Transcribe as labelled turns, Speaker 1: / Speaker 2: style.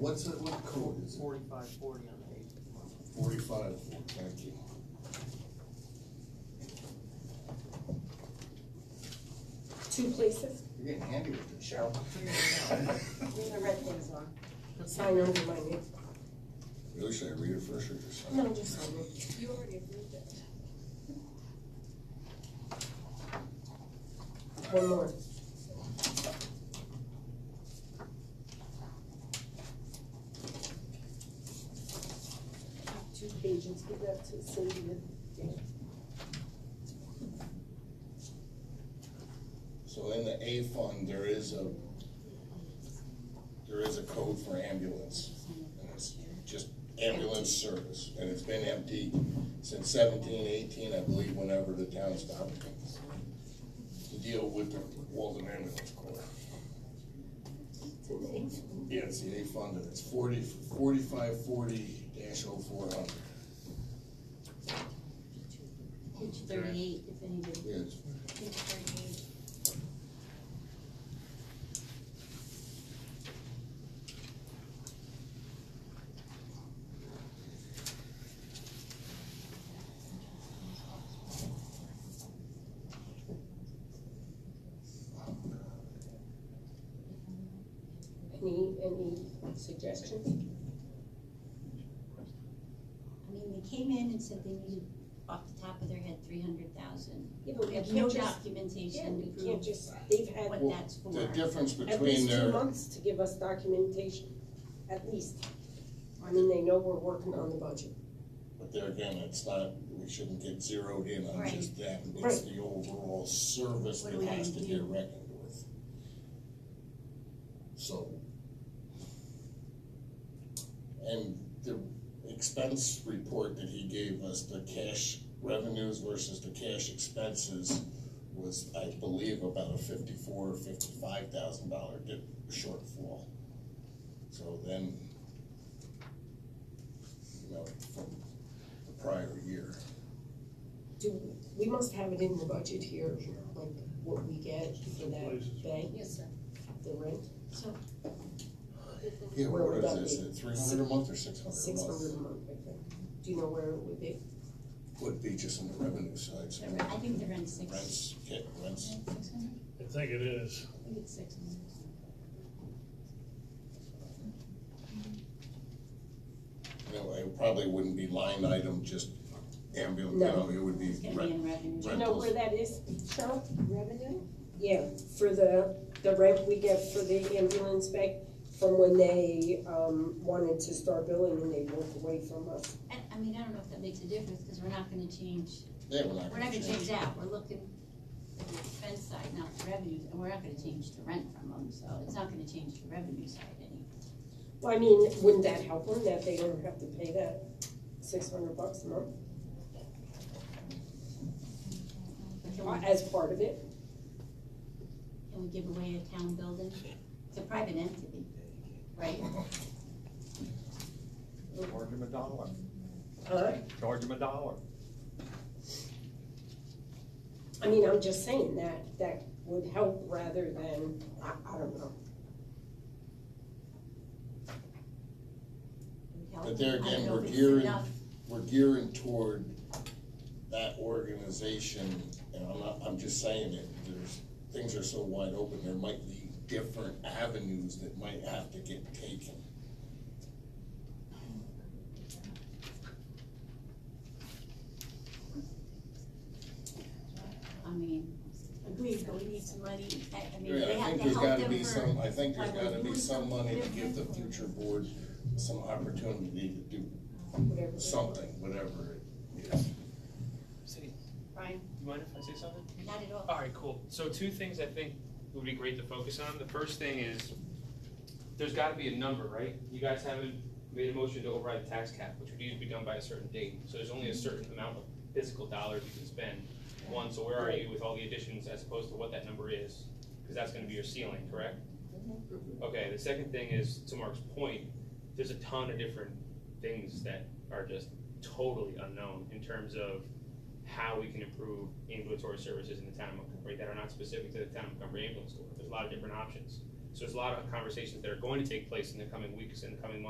Speaker 1: What's it, what code is it?
Speaker 2: forty-five forty on the eighth of March.
Speaker 1: Forty-five, thank you.
Speaker 3: Two places?
Speaker 1: You're getting handy with this, Cheryl.
Speaker 3: Leave the red things on. Sign over my name.
Speaker 1: Really, should I read it first or just?
Speaker 3: No, just sign it.
Speaker 4: You already approved it.
Speaker 3: One more. Two pages, give that to Cindy and Dan.
Speaker 1: So in the A fund, there is a, there is a code for ambulance. And it's just ambulance service, and it's been empty since seventeen, eighteen, I believe, whenever the town stopped to deal with the Walden Ambulance Corps. Yeah, it's the A fund, and it's forty, forty-five forty dash oh four hundred.
Speaker 5: Page thirty-eight, if anybody.
Speaker 1: Yeah, it's
Speaker 4: Page thirty-eight.
Speaker 3: Any, any suggestions?
Speaker 5: I mean, they came in and said they needed, off the top of their head, three hundred thousand.
Speaker 3: Yeah, but
Speaker 5: We
Speaker 3: we
Speaker 5: have no
Speaker 3: can't just, yeah,
Speaker 5: documentation
Speaker 3: we
Speaker 5: to
Speaker 3: can't
Speaker 5: prove
Speaker 3: just, they've had
Speaker 5: what
Speaker 1: Well,
Speaker 5: that's for.
Speaker 1: The difference
Speaker 3: at
Speaker 1: between
Speaker 3: least two
Speaker 1: their,
Speaker 3: months to give us documentation, at least. I mean, they know we're working on the budget.
Speaker 1: but there again, it's not, we shouldn't get zeroed in on
Speaker 5: Right.
Speaker 1: just that. It's
Speaker 3: Right.
Speaker 1: the overall service
Speaker 5: What
Speaker 1: that
Speaker 5: we
Speaker 1: has to
Speaker 5: do.
Speaker 1: get reckoned with. So. And the expense report that he gave us, the cash revenues versus the cash expenses was, I believe, about a fifty-four or fifty-five thousand dollar dip, shortfall. So then, you know, from the prior year.
Speaker 3: Do, we must have it in the budget here, like what we get for that bank,
Speaker 5: Yes, sir.
Speaker 3: the rent,
Speaker 5: So,
Speaker 1: Yeah,
Speaker 3: Where
Speaker 1: what
Speaker 3: would that
Speaker 1: is
Speaker 3: be?
Speaker 1: this, three hundred a month or six hundred
Speaker 3: six
Speaker 1: a
Speaker 3: hundred
Speaker 1: month?
Speaker 3: a month, I think. Do you know where it would be?
Speaker 1: Would be just on the revenue side, so
Speaker 5: the rent- I think the rent's six.
Speaker 1: rents, yeah, rents,
Speaker 5: Six hundred?
Speaker 6: I think it is.
Speaker 5: I think it's six hundred.
Speaker 1: you know, it probably wouldn't be line item, just ambulance, you
Speaker 3: No.
Speaker 1: know, it would be
Speaker 5: It's gonna be
Speaker 1: rent.
Speaker 5: in revenue.
Speaker 3: Do you
Speaker 1: Rent.
Speaker 3: know
Speaker 1: Rentals.
Speaker 3: where that is, Cheryl?
Speaker 4: Revenue?
Speaker 3: Yeah, for the, the rent we get for the ambulance back from when they, um, wanted to start billing and they walked away from us.
Speaker 5: I, I mean, I don't know if that makes a difference, because we're not gonna change,
Speaker 1: Yeah, we're
Speaker 5: we're not gonna change that, we're looking at the expense side, not the revenue, and we're not gonna change the rent from them, so it's not gonna change the revenue side any.
Speaker 3: Well, I mean, wouldn't that help them that they don't have to pay that six hundred bucks a month
Speaker 5: But can we-
Speaker 3: uh, as part of it?
Speaker 5: Can we give away a town building? It's a private entity, right?
Speaker 7: Charge him a dollar,
Speaker 3: Huh?
Speaker 7: charge him a dollar.
Speaker 3: I mean, I'm just saying that, that would help rather than, I, I don't know.
Speaker 1: But there
Speaker 5: I don't
Speaker 1: again,
Speaker 5: know
Speaker 1: we're
Speaker 5: if it's
Speaker 1: gearing-
Speaker 5: enough.
Speaker 1: We're gearing toward that organization, and I'm not, I'm just saying it, there's, things are so wide open, there might be different avenues that might have to get taken.
Speaker 5: I mean, agreed, but we need some money, I, I mean,
Speaker 1: Yeah,
Speaker 5: they
Speaker 1: I
Speaker 5: have
Speaker 1: think
Speaker 5: to
Speaker 1: there's
Speaker 5: help
Speaker 1: gotta
Speaker 5: them
Speaker 1: be some,
Speaker 5: for,
Speaker 1: I think there's
Speaker 5: why we're
Speaker 1: gotta be
Speaker 5: doing
Speaker 1: some money to
Speaker 5: something
Speaker 1: give the
Speaker 5: different.
Speaker 1: future board some opportunity to do
Speaker 3: Whatever.
Speaker 1: something, whatever it is.
Speaker 8: City,
Speaker 5: Brian,
Speaker 8: you mind if I say something?
Speaker 5: not at all.
Speaker 8: All right, cool. So two things I think would be great to focus on. The first thing is, there's gotta be a number, right? You guys haven't made a motion to override the tax cap, which would need to be done by a certain date. So there's only a certain amount of physical dollars you can spend. One, so where are you with all the additions as opposed to what that number is? Because that's gonna be your ceiling, correct? Okay, the second thing is, to Mark's point, there's a ton of different things that are just totally unknown in terms of how we can improve ambulatory services in the town of Montgomery that are not specific to the town of Montgomery Ambulance Corps. There's a lot of different options. So there's a lot of conversations that are going to take place in the coming weeks and the coming months.